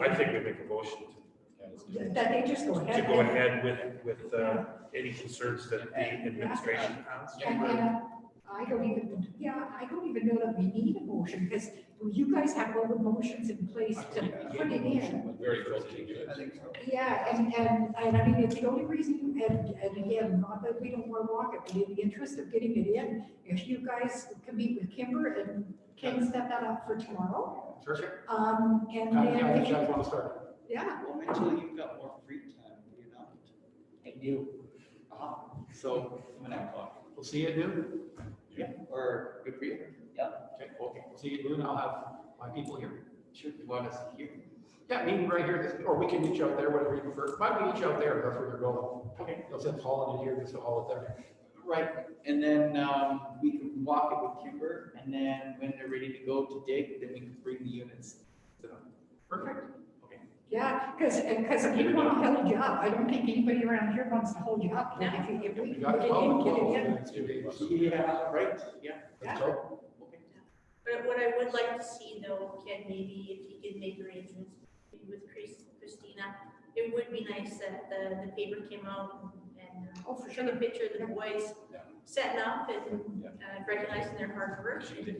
I think we make a motion That they just go to ahead. go ahead with, with uh, any concerns that the administration has. And, uh, I don't even, yeah, I don't even know that we need a motion, because you guys have all the motions in place to put it in. Very guilty. Yeah, and, and, and I mean, it's the only reason, and, and again, not that we don't want to walk it, but in the interest of getting it in, if you guys can meet with Kimber and can set that up for tomorrow, Sure. um, and Kind of, yeah, then, Jeff, want to start? yeah, Well, until you've got more free time, you know? And you. Uh-huh. So, when I'm talking, We'll see you at noon. or good for you. Okay, okay. We'll see you at noon. I'll have my people here. Sure, you want us here? Yeah, meeting right here, this- or we can meet you out there, whatever you prefer. Why don't we meet you out there? That's where you're going. Okay. They'll send Holland in here, just haul it there. Right, and then, um, we can walk it with Kimber, and then when they're ready to go to dig, then we can bring the units. to them. Perfect. yeah, because, because we don't want to hold you up, I don't think anybody around here wants to hold you up, Like, if you, if we You can got get it. Well, in, get well, it in. it's two days. Yeah, uh, right, yeah. That's all. But what I would like to see though, Ken, maybe if you could make arrangements with Chris, Christina, it would be nice that the, the paper came out and uh, Oh, for showed a picture of the boys Yeah. setting up and Yeah. uh, recognizing their hard work. Yeah,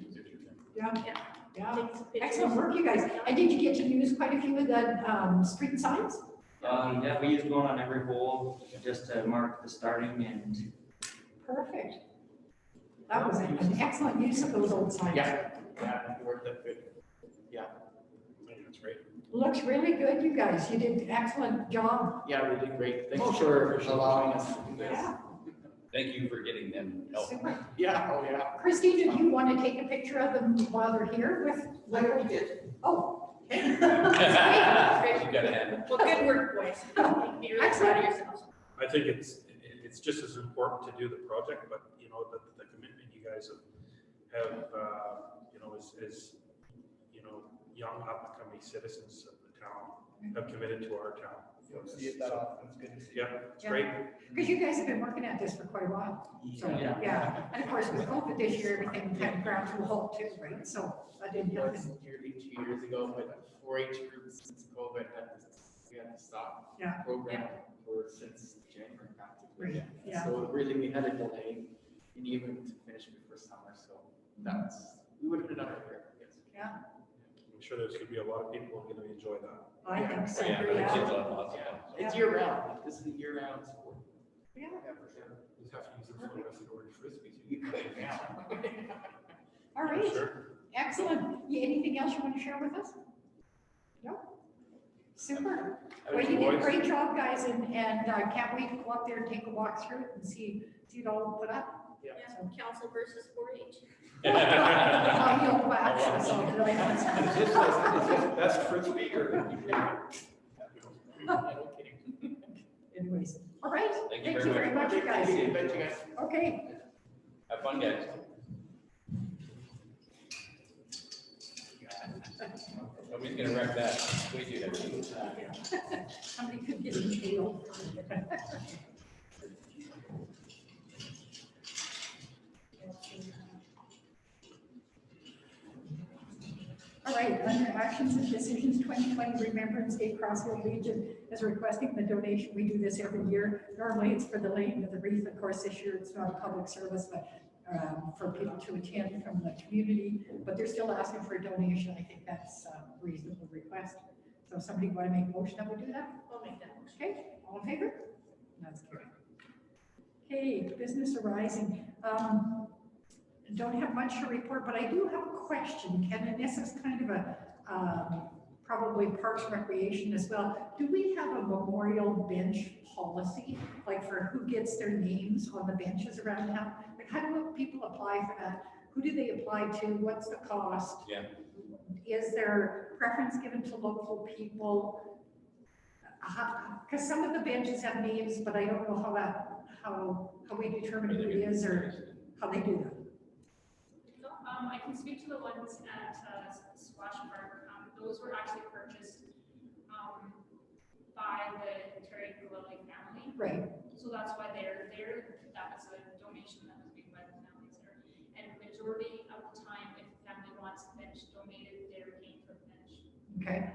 Yeah. yeah. Take some pictures. Excellent work, you guys. And did you get to use quite a few of the, um, street signs? Um, yeah, we use one on every hole just to mark the starting and Perfect. That was an excellent use of those old signs. Yeah, yeah, it worked out good. That's right. Looks really good, you guys. You did an excellent job. Yeah, we did great. Oh, Thanks for allowing us to do this. Yeah, Thank you for getting them help. super. Yeah, oh, yeah. Christine, did you want to take a picture of them while they're here with? I already did. Oh, You gotta have it. Well, good work, boys. Be really proud of yourselves. I think it's, it- it's just as important to do the project, but you know, the, the commitment you guys have, have, uh, you know, as, as, you know, young up and coming citizens of the town have committed to our town. You don't see it that often. It's good to see. Yeah, it's great. because you guys have been working at this for quite a while. So, Yeah. yeah. And of course, with COVID this year, everything kind of ground to a halt too, right? So I didn't It know. was nearly two years ago, but four H groups since COVID had to, we had to stop. Yeah. Program for since January practically. Right, yeah. So really, we had a delay in even to finish before summer, so that's, we would have been under here, I guess. I'm sure there's gonna be a lot of people who are gonna enjoy that. I think so, Yeah, the yeah. kids love lots of them. It's year round, like, this is a year round sport. Yeah. for sure. Just have to use it for the rest of the orange frisbees. You could, yeah. All right. Sure. Excellent. Y- Anything else you want to share with us? No? Super. Well, you did a great job, guys, and, and uh, can't wait to go up there and take a walk through it and see, see it all put up. Yeah, Council versus four H. I Oh, know, but actually, so did Is I. this, is this best frisbee or? Yeah, no kidding. Anyways, all right. Thank you Thank very you very much. much, you guys. Bet you guys. Okay. Have fun, guys. Nobody's gonna wreck that. We do that. Somebody could get in jail. All right, under actions and decisions, twenty twenty Remembrance Day Crossville Legion is requesting the donation. We do this every year. Normally it's for the laying of the wreath. Of course, this year it's not a public service, but um, for people to attend from the community, but they're still asking for a donation. I think that's a reasonable request. So if somebody want to make a motion, I would do that. I'll make that motion. Okay, all in favor? That's carried. Okay, business arising. Um, Don't have much to report, but I do have a question, Ken, and this is kind of a, um, probably Parks Recreation as well. Do we have a memorial bench policy, like for who gets their names on the benches around town? Like, how do people apply for that? Who do they apply to? What's the cost? Yeah. Is there preference given to local people? Because some of the benches have names, but I don't know how that, how, how we determine who it is or how they do that. Um, I can speak to the ones at, uh, Squash Park, um, those were actually purchased, um, by the Terry Glowley family, Right, so that's why they're there, that was a donation that was made by the families there. And majority of the time, if the family wants a bench donated, they're paying for the bench. okay.